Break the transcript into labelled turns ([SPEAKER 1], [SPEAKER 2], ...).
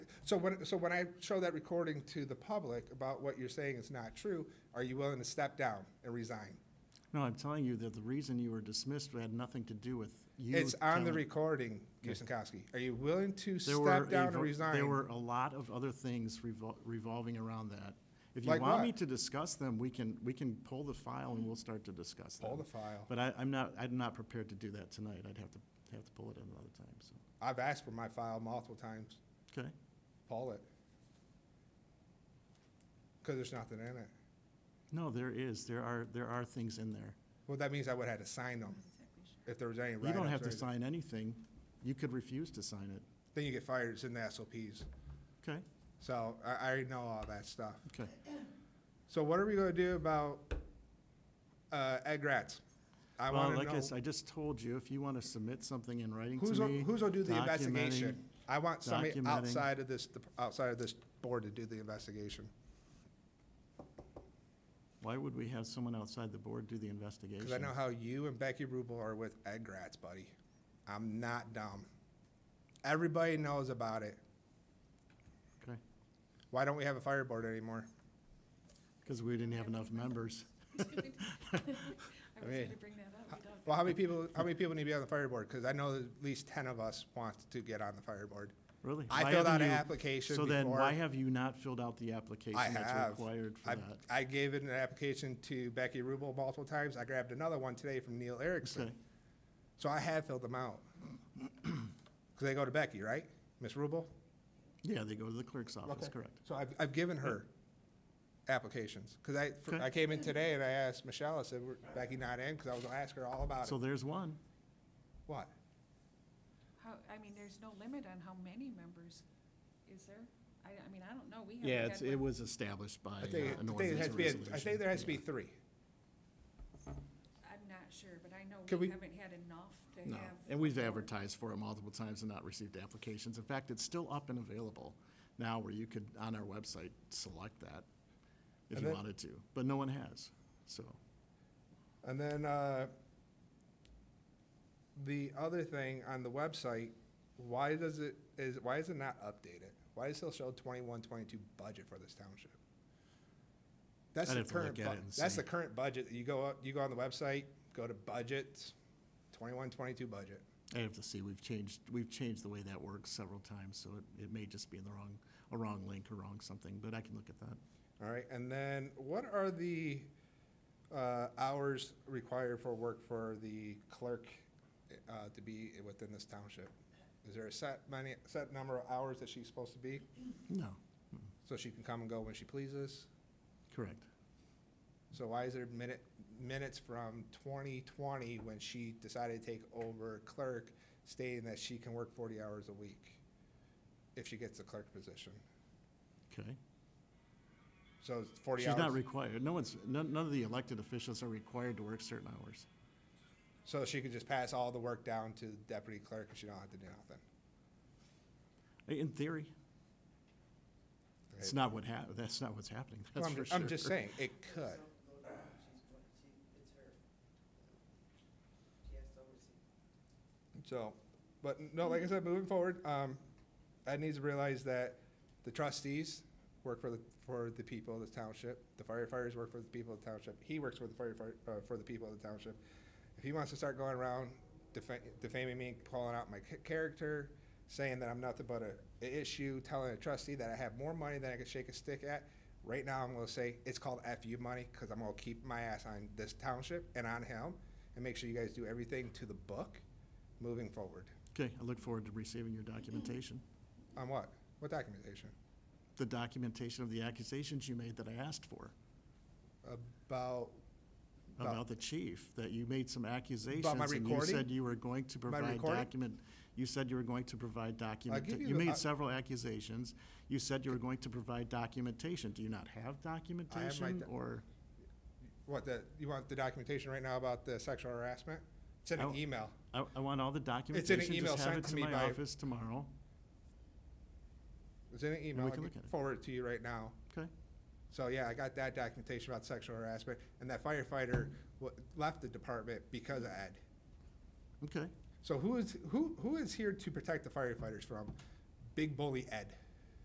[SPEAKER 1] So when, so when I show that recording to the public about what you're saying is not true, are you willing to step down and resign?
[SPEAKER 2] No, I'm telling you that the reason you were dismissed had nothing to do with you.
[SPEAKER 1] It's on the
[SPEAKER 2] telling-
[SPEAKER 1] recording, Kusinkowski. Are you willing to
[SPEAKER 2] There were
[SPEAKER 1] step down
[SPEAKER 2] a
[SPEAKER 1] and
[SPEAKER 2] vo- There
[SPEAKER 1] resign?
[SPEAKER 2] were a lot of other things revol- revolving around that. If you
[SPEAKER 1] Like
[SPEAKER 2] want
[SPEAKER 1] what?
[SPEAKER 2] me to discuss them, we can, we can pull the file and we'll start to discuss them.
[SPEAKER 1] Pull the file.
[SPEAKER 2] But I, I'm not, I'm not prepared to do that tonight. I'd have to, have to pull it another time, so,
[SPEAKER 1] I've asked for my file multiple times.
[SPEAKER 2] okay?
[SPEAKER 1] Pull it. Because there's nothing in it.
[SPEAKER 2] No, there is, there are, there are things in there.
[SPEAKER 1] Well, that means I would have had to sign them if there was any
[SPEAKER 2] You
[SPEAKER 1] write-ups.
[SPEAKER 2] don't have
[SPEAKER 1] or
[SPEAKER 2] to
[SPEAKER 1] anything.
[SPEAKER 2] sign anything. You could refuse to sign it,
[SPEAKER 1] Then you get fired. It's in the SOPs.
[SPEAKER 2] okay?
[SPEAKER 1] So I, I already know all that stuff.
[SPEAKER 2] Okay.
[SPEAKER 1] So what are we gonna do about, uh, Ed Gratz? I
[SPEAKER 2] Well,
[SPEAKER 1] wanna
[SPEAKER 2] like I s-
[SPEAKER 1] know,
[SPEAKER 2] I just told you, if you want to submit something in writing to
[SPEAKER 1] who's, gonna-
[SPEAKER 2] me.
[SPEAKER 1] who's gonna do the
[SPEAKER 2] documenting-
[SPEAKER 1] investigation? I want somebody
[SPEAKER 2] documenting-
[SPEAKER 1] outside of this, dep- outside of this board to do the investigation,
[SPEAKER 2] Why would we have someone outside the board do the investigation?
[SPEAKER 1] cause I know how you and Becky Rubel are with Ed Gratz, buddy. I'm not dumb. Everybody knows about it.
[SPEAKER 2] Okay,
[SPEAKER 1] Why don't we have a fire board anymore?
[SPEAKER 2] because we didn't have enough members.
[SPEAKER 3] I was
[SPEAKER 1] mean,
[SPEAKER 3] gonna bring that up. We don't.
[SPEAKER 1] Well, how many people, how many people need to be on the fire board? Cause I know that at least ten of us want to get on the fire board.
[SPEAKER 2] Really?
[SPEAKER 1] I
[SPEAKER 2] Why
[SPEAKER 1] filled out
[SPEAKER 2] haven't
[SPEAKER 1] an
[SPEAKER 2] you-
[SPEAKER 1] application
[SPEAKER 2] So then, why
[SPEAKER 1] before.
[SPEAKER 2] have you not filled out the application
[SPEAKER 1] I
[SPEAKER 2] that's
[SPEAKER 1] have.
[SPEAKER 2] required for
[SPEAKER 1] I,
[SPEAKER 2] that?
[SPEAKER 1] I gave it an application to Becky Rubel multiple times. I grabbed another one today from Neil Erickson.
[SPEAKER 2] Okay,
[SPEAKER 1] So I have filled them out. Because they go to Becky, right? Miss Rubel?
[SPEAKER 2] yeah, they go to the clerk's office,
[SPEAKER 1] Okay.
[SPEAKER 2] correct.
[SPEAKER 1] So I've, I've given her applications. Because I, fr-
[SPEAKER 2] Okay.
[SPEAKER 1] I came in today and I asked Michelle, I said, "Were Becky not in? Because I was gonna ask her all about
[SPEAKER 2] So
[SPEAKER 1] it.
[SPEAKER 2] there's one.
[SPEAKER 1] What?
[SPEAKER 3] How, I mean, there's no limit on how many members, is there? I, I mean, I don't know. We haven't
[SPEAKER 2] Yeah,
[SPEAKER 3] had
[SPEAKER 2] it's, it
[SPEAKER 3] one.
[SPEAKER 2] was established by
[SPEAKER 1] I
[SPEAKER 2] uh,
[SPEAKER 1] think, it-
[SPEAKER 2] an
[SPEAKER 1] I think it
[SPEAKER 2] ordinance
[SPEAKER 1] has
[SPEAKER 2] or
[SPEAKER 1] to be, a-
[SPEAKER 2] resolution.
[SPEAKER 1] I think there has to be
[SPEAKER 2] Yeah.
[SPEAKER 1] three.
[SPEAKER 3] I'm not sure, but I know
[SPEAKER 1] Can
[SPEAKER 3] we
[SPEAKER 1] we-
[SPEAKER 3] haven't had enough to
[SPEAKER 2] No,
[SPEAKER 3] have.
[SPEAKER 2] and we've
[SPEAKER 3] a board.
[SPEAKER 2] advertised for it multiple times and not received applications. In fact, it's still up and available now where you could, on our website, select that if
[SPEAKER 1] And
[SPEAKER 2] you
[SPEAKER 1] that-
[SPEAKER 2] wanted to, but no one has, so.
[SPEAKER 1] And then, uh, the other thing on the website, why does it, is, why is it not updated? Why does it still show 21-22 budget for this township? That's
[SPEAKER 2] I'd
[SPEAKER 1] the
[SPEAKER 2] have to look
[SPEAKER 1] current,
[SPEAKER 2] at
[SPEAKER 1] bu-
[SPEAKER 2] it and
[SPEAKER 1] that's
[SPEAKER 2] see.
[SPEAKER 1] the current budget. You go up, you go on the website, go to budgets, 21-22 budget.
[SPEAKER 2] I have to see, we've changed, we've changed the way that works several times, so it, it may just be in the wrong, a wrong link or wrong something, but I can look at that.
[SPEAKER 1] All right, and then what are the, uh, hours required for work for the clerk, uh, to be within this township? Is there a set many, set number of hours that she's supposed to be?
[SPEAKER 2] No,
[SPEAKER 1] So she can come and go when she pleases.
[SPEAKER 2] correct.
[SPEAKER 1] So why is there minute, minutes from 2020 when she decided to take over clerk stating that she can work 40 hours a week if she gets the clerk position?
[SPEAKER 2] Okay.
[SPEAKER 1] So it's 40
[SPEAKER 2] She's not
[SPEAKER 1] hours.
[SPEAKER 2] required, no one's, none, none of the elected officials are required to work certain hours.
[SPEAKER 1] So she could just pass all the work down to the deputy clerk and she don't have to do nothing.
[SPEAKER 2] In theory, it's
[SPEAKER 1] Okay.
[SPEAKER 2] not what hap, that's not what's happening,
[SPEAKER 1] Well,
[SPEAKER 2] that's
[SPEAKER 1] I'm
[SPEAKER 2] for
[SPEAKER 1] ju-
[SPEAKER 2] sure.
[SPEAKER 1] I'm just saying, it could. So, but no, like I said, moving forward, um, I need to realize that the trustees work for the, for the people of the township. The firefighters work for the people of the township. He works for the firefighter, uh, for the people of the township. If he wants to start going around defa- defaming me, calling out my ca- character, saying that I'm nothing but a, a issue, telling a trustee that I have more money than I could shake a stick at, right now I'm gonna say it's called FU money, cause I'm gonna keep my ass on this township and on him and make sure you guys do everything to the book moving forward.
[SPEAKER 2] Okay, I look forward to receiving your documentation,
[SPEAKER 1] On what? What documentation?
[SPEAKER 2] the documentation of the accusations you made that I asked for
[SPEAKER 1] About, About-
[SPEAKER 2] about the chief, that you made some accusations. And you
[SPEAKER 1] recording?
[SPEAKER 2] said you were going to provide
[SPEAKER 1] recording?
[SPEAKER 2] document, you said you were going to provide document,
[SPEAKER 1] give you
[SPEAKER 2] you
[SPEAKER 1] the- I-
[SPEAKER 2] made several accusations. You said you were going to provide documentation. Do you not have documentation
[SPEAKER 1] doc-
[SPEAKER 2] or?
[SPEAKER 1] what the, you want the documentation right now about the sexual harassment? It's in an
[SPEAKER 2] Oh.
[SPEAKER 1] email.
[SPEAKER 2] I, I want all the
[SPEAKER 1] It's in an
[SPEAKER 2] documentation.
[SPEAKER 1] email
[SPEAKER 2] Just have
[SPEAKER 1] sent
[SPEAKER 2] it
[SPEAKER 1] to
[SPEAKER 2] to
[SPEAKER 1] me
[SPEAKER 2] my
[SPEAKER 1] by-
[SPEAKER 2] office tomorrow.
[SPEAKER 1] It's in an email.
[SPEAKER 2] we
[SPEAKER 1] I can
[SPEAKER 2] can look at it.
[SPEAKER 1] forward it to you right now.
[SPEAKER 2] Okay,
[SPEAKER 1] So yeah, I got that documentation about sexual harassment and that firefighter wa- left the department because of Ed.
[SPEAKER 2] okay.
[SPEAKER 1] So who is, who, who is here to protect the firefighters from big bully Ed?